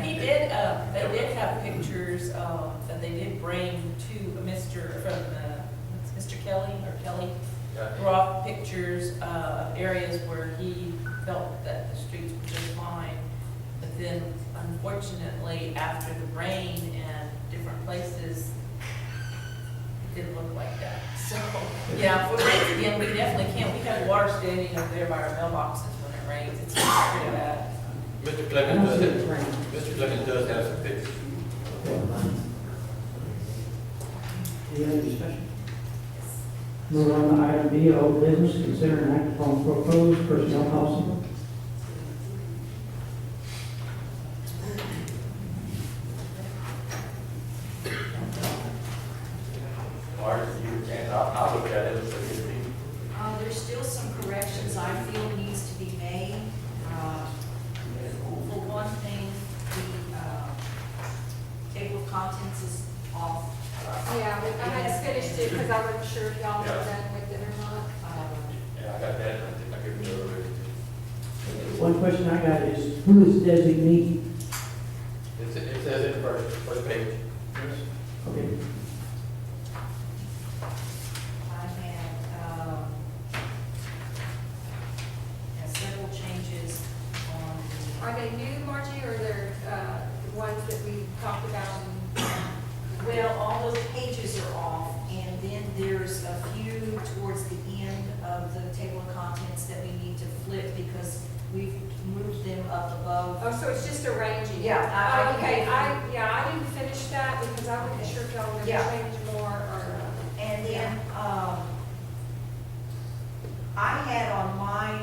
uh, have pictures uh, that they did bring to Mr., from uh, Mr. Kelly or Kelly, Yeah. brought pictures uh, of areas where he felt that the streets were just fine. But then unfortunately, after the rain and different places, it didn't look like that. So, yeah, if it rains again, we definitely can't. We have water standing up there by our mailboxes when it rains. It's pretty bad. Mr. Clemens does have, Mr. Clemens does have some pictures. Any other discussion? Move on to item B, old business, consider an act upon proposed personnel policy. Mark, you can, I'll, I'll look at it, so you see. Uh, There's still some corrections I feel needs to be made. Uh, For one thing, the uh, table of contents is off. Yeah, we- I had finished it because I wasn't sure if y'all were done with it or not. Uh, Yeah, I got that, I think I give it to her. One question I got is, who is designee? It's, it says it first, first page. Okay, I had, um, had several changes on the, Are they new, Margie, or they're uh, the ones that we talked about? uh, well, all those pages are off. And then there's a few towards the end of the table of contents that we need to flip because we've moved them up above Oh, so it's just arranging? Yeah, I- I Oh, Okay, can- I, yeah, I didn't finish that because I wasn't sure if y'all were going to Yeah. change more or. uh, And then, um, I had on my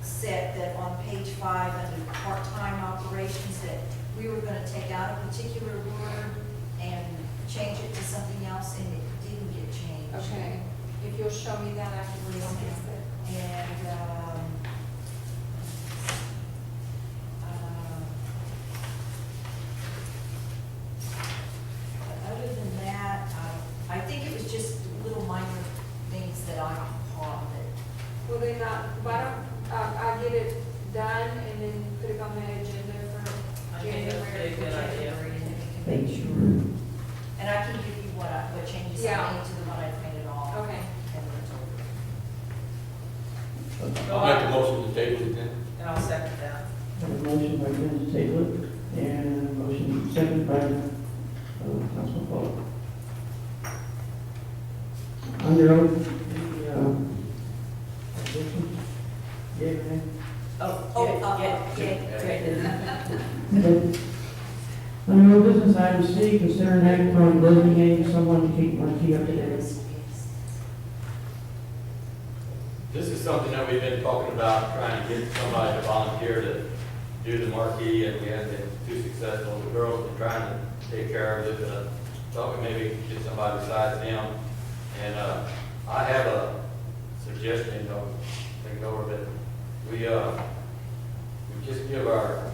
set that on page five, under part-time operations, that we were gonna take out a particular word and change it to something else, and it didn't get changed. Okay, if you'll show me that after we Yes, discuss And, um, uh, other than that, I, I think it was just little minor things that I caught that, it. Will they not, uh, why don't, uh, I I get it done and then put it on the agenda I think for that's a January? good idea. January, and then we can thank make- you. And I can give you what I, what changes I Yeah. made to the one I've made at all. Okay. And we're told. I'll make a motion to table it then. And I'll second that. Have a motion by Ms. Taylor, and a motion second by uh, Councilman Paul. Under oath, any, uh, objection? Yeah, ma'am? Oh, Oh, yeah, uh, yeah, yeah, yeah. Okay. Under old business, item C, consider an act upon designating someone to keep Marquis up to date. This is something that we've been talking about, trying to get somebody to volunteer to do the marquee, and we haven't been too successful. The girls been trying to take care of it, but I thought we maybe could get somebody besides them. And, uh, I have a suggestion, don't think over, but we, uh, we just give our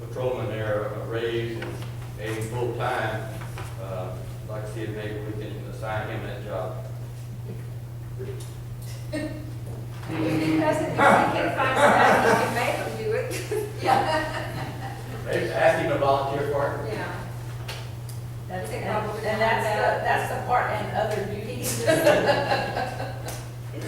patrolmen there a raise and maybe full-time, uh, like see if maybe we can assign him that job. If he doesn't, if he can find somebody, he can make him do it. Maybe ask him to volunteer for it. Yeah. That's, Okay, and probably and that's, not the- that. that's the part and other duties. Isn't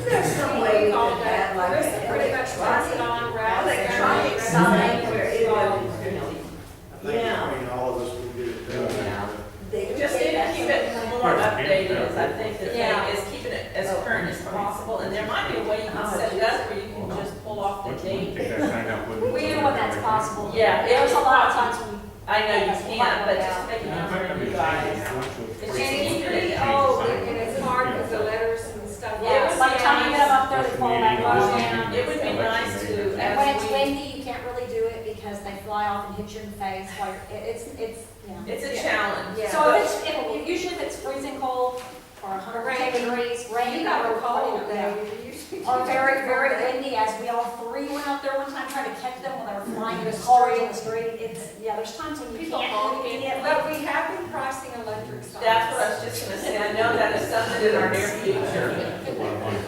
there some We way call that, that- that, like. this is pretty much what's electronic- on route Electronic there. sign where it Mhm. would, you know, I think between all of us, we get it Yeah. done. they. Just need to keep it more updated, is I think the Yeah. thing is keeping it as current as possible, and there might be a way you Oh, can set it up where you can just pull off the date. We know when that's possible. Yeah, it There's a was lot of possible. times when I know you can't, but just make it known to you guys. And it's pretty old, and it's hard because the letters and stuff. Yeah, it's By the time you get up there, it's falling back down. It would be nice to, And oh, when as it's we, windy, you can't really do it because they fly off and hit you in the face while you're, it- it's, it's, you know. it's a challenge. Yeah. So if it's, if, usually if it's freezing cold or a hundred and ten degrees, rain. You got or, a cold you know, day. You- Or very, very windy, as we all three went out there one time trying to catch them when they were flying in the car in the street. It's, yeah, there's times when you People can't. honking. you can't- But we have been crossing electric signs. That's what I was just gonna say, I know that is something in our near future.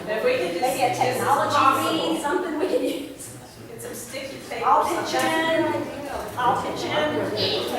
If we could just. Maybe a this is technology possible. meeting, something we can use. Get some sticky tape. or I'll pitch something. in, I'll pitch in.